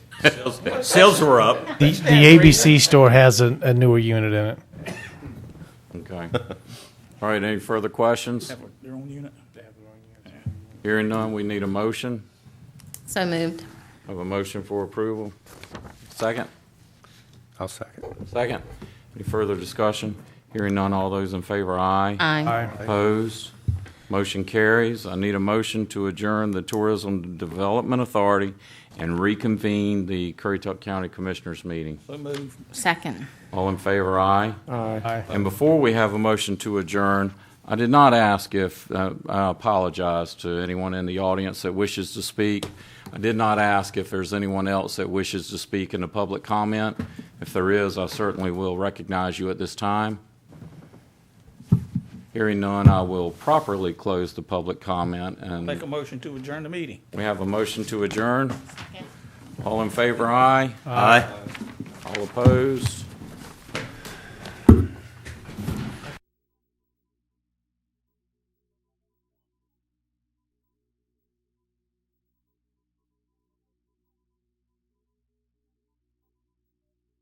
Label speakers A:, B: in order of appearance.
A: Sales, sales were up.
B: The, the ABC store has a, a newer unit in it.
C: Okay. All right, any further questions?
D: Their own unit?
C: Hearing none, we need a motion.
E: So moved.
C: Have a motion for approval. Second?
F: I'll second.
C: Second. Any further discussion? Hearing none, all those in favor, aye.
E: Aye.
C: Opposed? Motion carries. I need a motion to adjourn the Tourism Development Authority and reconvene the Currituck County Commissioners meeting.
D: So move.
E: Second.
C: All in favor, aye.
B: Aye.
C: And before we have a motion to adjourn, I did not ask if, uh, I apologize to anyone in the audience that wishes to speak. I did not ask if there's anyone else that wishes to speak in the public comment. If there is, I certainly will recognize you at this time. Hearing none, I will properly close the public comment,
D: Make a
C: and
D: motion to adjourn the meeting.
C: we have a motion to adjourn. All in favor, aye.
A: Aye.
C: All opposed?